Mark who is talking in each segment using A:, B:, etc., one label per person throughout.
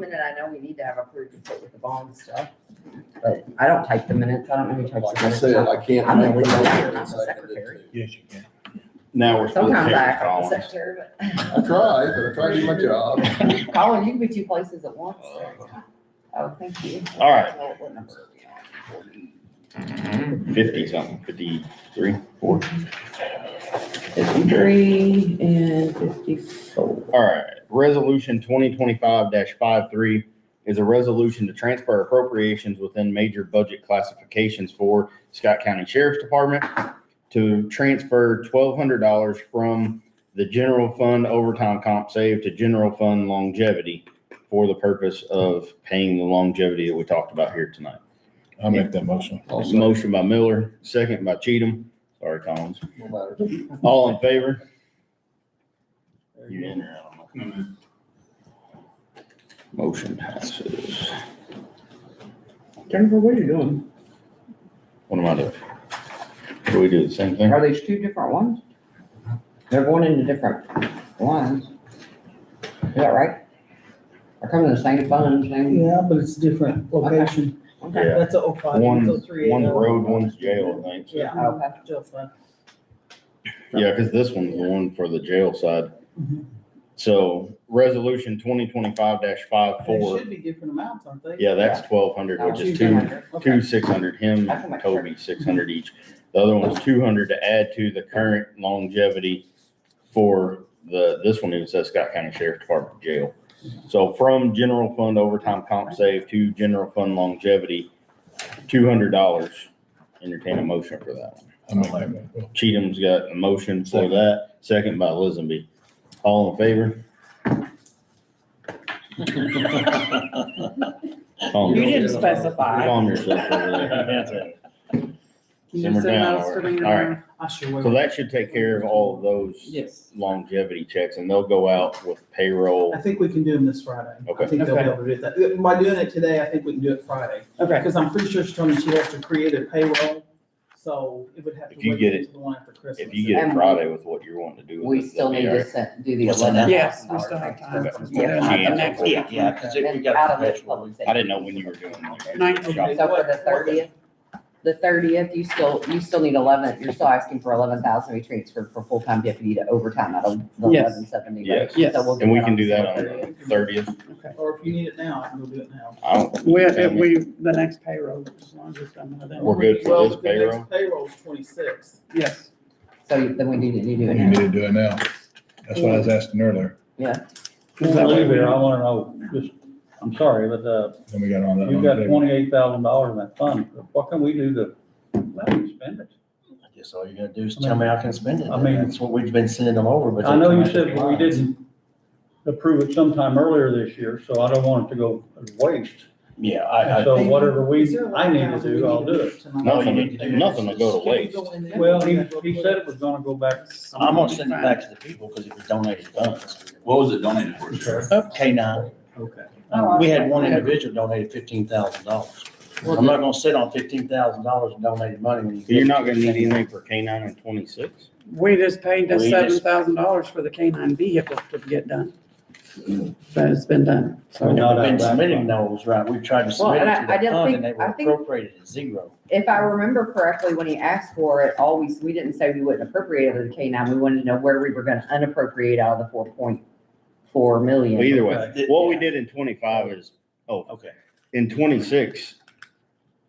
A: that I know we need to have approved to put with the bond and stuff. But I don't type the minutes. I don't know who types
B: Like
A: the
B: I said,
A: minutes.
B: I can't.
A: I'm the
B: make the
A: leader,
B: motion
A: I'm not the
B: if I didn't
A: secretary.
B: do.
C: Yes, you can.
D: Now we're supposed to
A: Sometimes I
D: take
A: act like the
D: columns.
A: secretary, but.
B: I tried, but I tried to do my job.
A: Colin, you can be two places at once. Oh, thank you.
D: All right.
A: Well, what number are we on? Forty.
D: Fifty something, fifty-three, four.
A: Fifty-three and fifty-four.
D: All right, resolution twenty twenty-five 53 is a resolution to transfer appropriations within major budget classifications for Scott County Sheriff's Department to transfer twelve hundred dollars from the general fund overtime comp save to general fund longevity for the purpose of paying the longevity that we talked about here tonight.
C: I'll make that motion.
B: Also, no
D: Motion by Miller, second by Cheatham. Sorry, Collins.
B: matter.
D: All in favor? You in or out? I'm not Motion passes.
E: Jennifer, what are you doing?
D: What am I doing? Do we do the same thing?
A: Are these two different ones? They're going into different lines. Is that right? They're coming in the same fund, same.
E: Yeah, but it's different location.
A: Okay.
D: Yeah.
E: That's a oh five,
D: One's,
E: that's a
D: one's
E: three eight oh.
D: road, one's jail, I think.
E: Yeah,
A: Oh, Okay.
E: jail fund.
D: Yeah, because this one's the one for the jail side.
E: Mhm.
D: So resolution twenty twenty-five dash five
E: They
D: four.
E: should be different amounts, aren't they?
D: Yeah, that's twelve hundred, which is two, two six hundred, him,
A: I can make sure.
D: Toby, six hundred each. The other one's two hundred to add to the current longevity for the, this one is uh, Scott County Sheriff Department Jail. So from general fund overtime comp save to general fund longevity, two hundred dollars. Entertain a motion for that.
C: I'll make that motion.
D: Cheatham's got a motion for that, second by Lisenby. All in favor? Calm
F: You
D: yourself-
F: didn't specify.
D: calm yourself over there.
F: You
D: Simmer
F: said
D: down,
F: that's
D: Laura.
F: the reason.
D: All right.
E: I sure will.
D: So that should take care of all of those
E: Yes.
D: longevity checks and they'll go out with payroll.
E: I think we can do them this Friday.
D: Okay.
E: I think they'll be
F: Okay.
E: able to do that. By doing it today, I think we can do it Friday.
F: Okay,
E: Because I'm pretty sure she told me she has to create a payroll, so it would have to
D: If you
E: wait
D: get it-
E: until the one after Christmas.
D: If you get it
A: And-
D: Friday with what you're wanting to do
A: We
D: with it,
A: still
D: that'd
A: need
D: be all
A: to
D: right.
A: set, do the
G: What's that
A: eleven
G: now?
A: thousand.
F: Yes, we still have time.
G: Yeah, not the
D: Yeah.
G: next, yeah, yeah, because we've
A: Out
G: got
A: of
G: the
A: the
G: vegetable.
A: public
D: I
A: safety.
D: didn't know when you were doing. that.
F: Nineteen.
D: Shop.
A: So for the thirtieth, the thirtieth, you still, you still need eleven, you're still asking for eleven thousand to be transferred for full-time deputy to overtime out of the
F: Yes.
A: eleven seventy.
D: Yes.
F: Yes.
D: And we can do that on the thirtieth.
E: Or if you need it now, I can go do it now.
D: I don't.
F: we, if we, the next payroll, as long as it's done by then.
D: We're good for
E: Well,
D: this
E: the next
D: payroll?
E: Payroll's twenty-sixth.
F: Yes,
A: So then we need to, you do
C: You
A: it
C: need
A: now.
C: to do it now. That's what I was asking earlier,
F: Is that what
H: Believe
F: we-
H: it, I wanna know, just, I'm sorry, but, uh,
C: then we got on that.
H: you've
C: on
H: got
C: the-
H: twenty-eight thousand dollars in that fund, what can we do to let you spend it?
G: I guess all you gotta do is tell me I can spend it.
H: I mean-
G: That's what we've been sending them over, but.
H: I know you
G: they come
H: said
G: out
H: we
G: of the lines.
H: didn't approve it sometime earlier this year, so I don't want it to go waste.
G: Yeah, I, I,
H: So whatever we, I need to do, I'll do it.
D: Nothing, nothing to go to waste.
H: Well, he, he said it was gonna go back.
G: I'm gonna send it back to the people because it was donated funds.
F: What was it donated for?
G: K nine,
H: Okay.
F: Oh,
G: we had one individual donated fifteen thousand dollars. I'm not gonna sit on fifteen thousand dollars in donated money when you.
D: You're not gonna need anything for K nine and twenty-six?
F: We just paid the
G: We
F: seven
G: just-
F: thousand dollars for the canine vehicle to get done. But it's been done, so.
H: No,
G: Not
H: no,
G: been
H: that's
G: submitting
H: fine.
G: those, right, we tried to
A: Well,
G: submit
A: and
G: it
A: I-
G: to
A: I
G: the
A: didn't
G: fund
A: think-
G: and they
A: I
G: were
A: think-
G: appropriated at zero.
A: If I remember correctly, when he asked for it, always, we didn't say we wouldn't appropriate it of the K nine, we wanted to know where we were gonna unappropriate out of the four point four million.
D: Well, Either way, what we did in twenty-five is, oh,
G: Okay.
D: in twenty-six,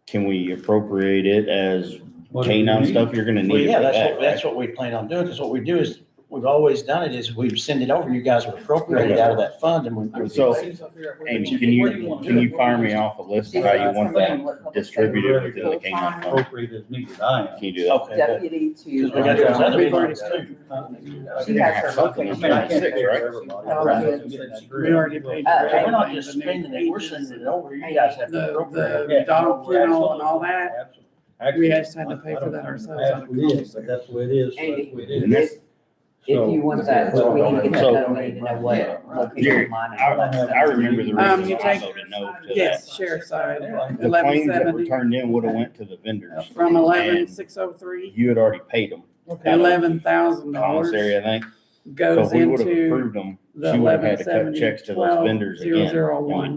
D: can we appropriate it as
H: What do we
D: K-9
H: need?
D: stuff you're gonna
G: Well,
D: need
G: yeah,
D: for
G: that's
D: that,
G: what, that's
D: right?
G: what we plan on doing, because what we do is, we've always done it, is we've sent it over, you guys would appropriate it out of that fund, and we.
D: So-
E: Amy,
D: Amy, can you, can you fire me off a
A: She
D: list of how
A: said
D: you want that?
A: something what public
D: distributed
A: safety
H: within
D: the K-9
A: full-time
H: Appropriate as needed, I am.
D: Can you do that?
G: Okay, but-
A: Deputy to.
G: because we got those other
F: We've already
G: ones too.
A: She has her.
D: Something in
H: I mean, I can't
D: 26,
H: pay for
D: right?
H: everybody.
A: Right.
F: We already paid.
A: Uh,
G: So We're not just spending it, we're sending it over, you guys have to
F: The,
G: appropriate.
F: the
H: Yeah.
F: dog kennel and all that,
H: Absolutely.
F: we just had to pay for that ourselves out of
H: Absolutely, it is,
F: commissary.
H: but That's the way it is, that's
A: Andy.
H: the way it
D: And
H: is.
D: that's-
A: If if you want that,
G: So-
A: we need to get that
D: So-
A: done, we need to know
G: Yeah.
A: what location
D: Jerry,
A: line.
D: I, I remember the
F: Um,
D: reason
F: you
D: why I
F: take-
D: voted no to that.
F: yes, sheriff's side,
D: The claims that were
F: 1170.
D: turned in would have went to the vendors.
F: from eleven
D: And
F: six oh three,
D: You had already paid them,
F: eleven thousand dollars
D: commissary, I think. So
F: goes
D: if we would have
F: into
D: approved them,
F: the
D: she would have
F: eleven
D: had to cut
F: seventy,
D: checks to those
F: twelve,
D: vendors
F: zero
D: again.
F: zero one.